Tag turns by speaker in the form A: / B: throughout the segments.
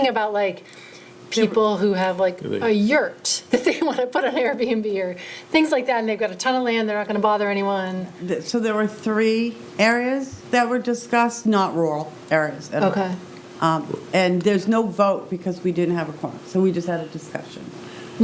A: thinking about like people who have like
B: They-
A: a yurt that they want to put on Airbnb or things like that, and they've got a ton of land, they're not going to bother anyone.
C: Th- So there were three areas that were discussed, not rural areas at all.
A: Okay.
C: Um, And there's no vote because we didn't have a quorum, so we just had a discussion.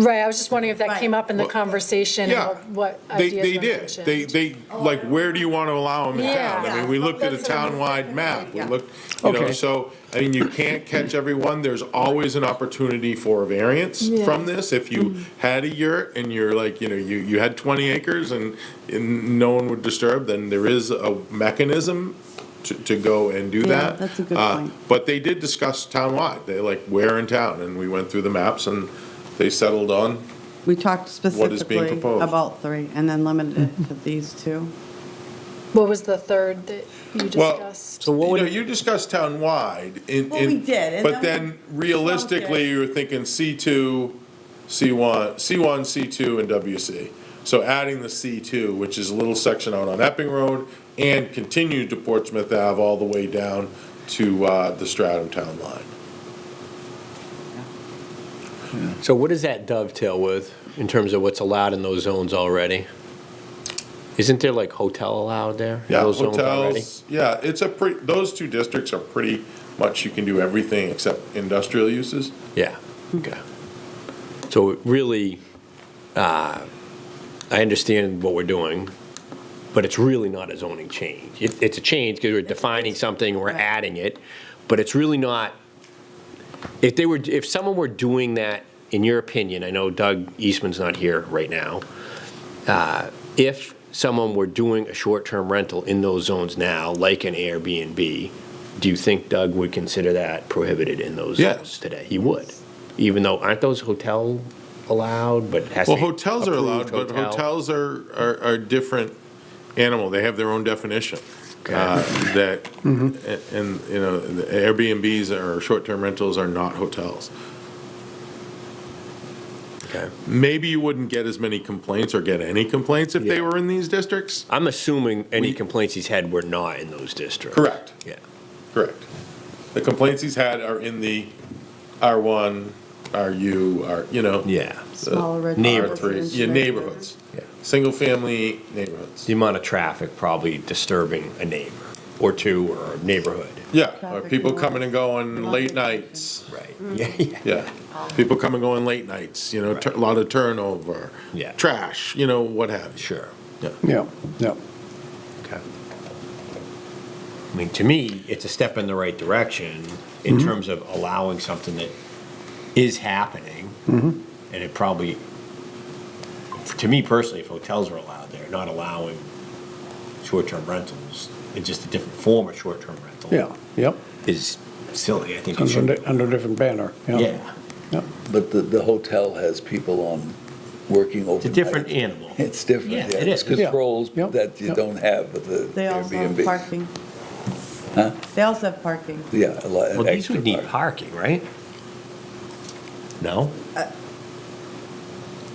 A: Right, I was just wondering if that came
C: Right.
A: up in the conversation and
B: Yeah.
A: what- what
B: They,
A: ideas were
B: they did.
A: mentioned.
B: They, they, like, where do you want to allow them in
A: Yeah.
B: town? I mean, we looked at a
C: Oh, That's what I'm
B: town-wide
C: saying.
B: map. We
C: Yeah.
B: looked, you know,
D: Okay.
B: so, I mean, you can't catch everyone. There's always an opportunity for a variance
A: Yeah. Mm-hmm.
B: from this. If you had a yurt and you're like, you know, you, you had 20 acres and, and no one would disturb, then there is a mechanism to, to go and do
C: Yeah,
B: that.
C: that's a good
B: Uh,
C: point.
B: But they did discuss town-wide. They like, where in town? And we went through the maps and they settled on
C: We talked
B: What is being
C: specifically
B: proposed?
C: about three, and then limited it to these two.
A: What was the third that you
B: Well,
A: discussed?
D: So what would
B: You know,
D: it-
B: you discussed town-wide in.
C: Well, we
B: in-
C: did, and
B: But
C: then we
B: then realistically,
C: it.
B: you were thinking C2, C1, C1, C2, and WC. So adding the C2, which is a little section out on Epping Road, and continue to Portsmouth Ave all the way down to uh, the Stratham Town Line.
D: So what does that dovetail with in terms of what's allowed in those zones already? Isn't there like hotel allowed there? in
B: Yeah,
D: those zones already?
B: hotels, yeah, it's a pretty, those two districts are pretty much, you can do everything except industrial uses.
D: Yeah, okay. So it really, uh, I understand what we're doing, but it's really not a zoning change. It, it's a change because we're defining something, we're adding it, but it's really not, if they were, if someone were doing that, in your opinion, I know Doug Eastman's not here right now, uh, if someone were doing a short-term rental in those zones now, like an Airbnb, do you think Doug would consider that prohibited in those
B: Yes.
D: zones today? He would, even though, aren't those hotel allowed, but it has to
B: Well,
D: be
B: hotels are
D: approved
B: allowed, but
D: hotel?
B: hotels are, are, are different animal. They have their own definition.
D: Okay.
B: Uh, that,
D: Mm-hmm.
B: and, you know, the Airbnbs or short-term rentals are not hotels.
D: Okay.
B: Maybe you wouldn't get as many complaints or get any complaints if they
D: Yeah.
B: were in these districts.
D: I'm assuming any
B: We-
D: complaints he's had were not in those districts.
B: Correct,
D: Yeah.
B: correct. The complaints he's had are in the R1, RU, R, you know.
D: Yeah.
B: the
C: Smaller red-
D: Neighborhoods.
B: R3s, Yeah, neighborhoods,
D: Yeah.
B: single-family neighborhoods.
D: The amount of traffic probably disturbing a neighbor or two or a neighborhood.
B: Yeah, or
C: Traffic
B: Uh, people
C: noise.
B: coming and going late
C: Traffic.
B: nights.
D: Right. Yeah, yeah.
B: Yeah,
C: Um,
B: people come and go on late nights, you know,
D: Right.
B: a lot of turnover.
D: Yeah.
B: Trash, you know, what have you.
D: Sure.
B: Yeah.
E: Yeah, yeah.
D: Okay. I mean, to me, it's a step in the right direction in terms of allowing something that is happening. And it probably, to me personally, if hotels are allowed there, not allowing short-term rentals, it's just a different form of short-term rental.
E: Yeah, yep.
D: Is silly, I think it should.
E: Under, under a different banner, yeah.
D: Yeah,
E: Yeah.
F: But the, the hotel has people on working overnight.
D: it's a different animal.
F: It's different,
D: Yeah,
F: yeah.
D: it
F: It's
D: is.
E: Yeah.
F: controls
E: Yep,
F: that you
E: yep.
F: don't have with the
C: They also have
F: Airbnb.
C: parking. They also have parking.
F: Yeah, a lot
D: Well,
F: of
D: these
F: extra
D: would need
F: parking.
D: parking, right? No?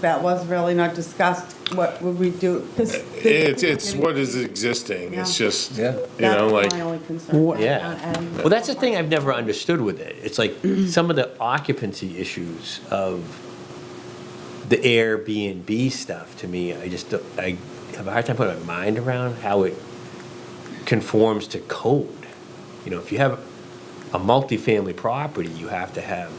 C: That was really not discussed, what would we do? 'cause they-
B: It's, it's what is existing, it's
C: Yeah.
B: just, you
F: Yeah.
B: know,
C: That's
B: like,
C: my only concern.
E: What-
D: Yeah.
C: Not adding-
D: Well, that's the thing I've never understood with it. It's like some of the occupancy issues of the Airbnb stuff to me, I just, don't- I have a hard time putting my mind around how it conforms to code. You know, if you have a multifamily property, you have to have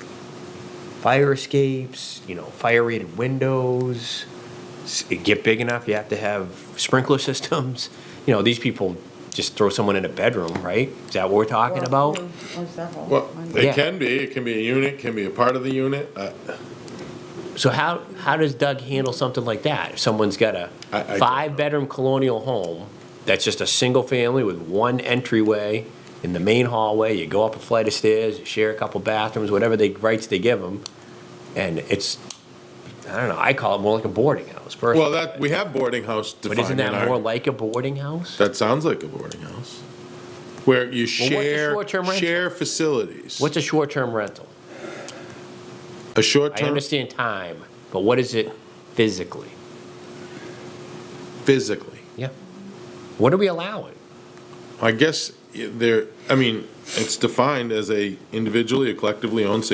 D: fire escapes, you know, fire rated windows. S- it Get big enough, you have to have sprinkler systems. You know, these people just throw someone in a bedroom, right? Is that what we're talking
C: Or
D: about?
C: two, or several.
B: well,
D: Yeah.
B: it can be, it can be a unit, can be a part of the unit. Uh, I-
D: So how, how does Doug handle something like that? If someone's got a
B: I- I don't know.
D: five-bedroom colonial home, that's just a single family with one entryway in the main hallway, you go up a flight of stairs, you share a couple bathrooms, whatever they, rights they give them, and it's, I don't know, I call it more like a boarding house
B: Well,
D: personally.
B: that, we have boarding house
D: But isn't
B: defined in
D: that more
B: our,
D: like a boarding house?
B: that sounds like a boarding house. Where you
D: a
B: share,
D: short-term rental?
B: share facilities.
D: What's a short-term rental?
B: A
D: I
B: short-term
D: understand time, but what is it physically?
B: physically.
D: Yeah. What are we allowing?
B: I guess eh, there, I mean, it's defined as a individually or collectively owned single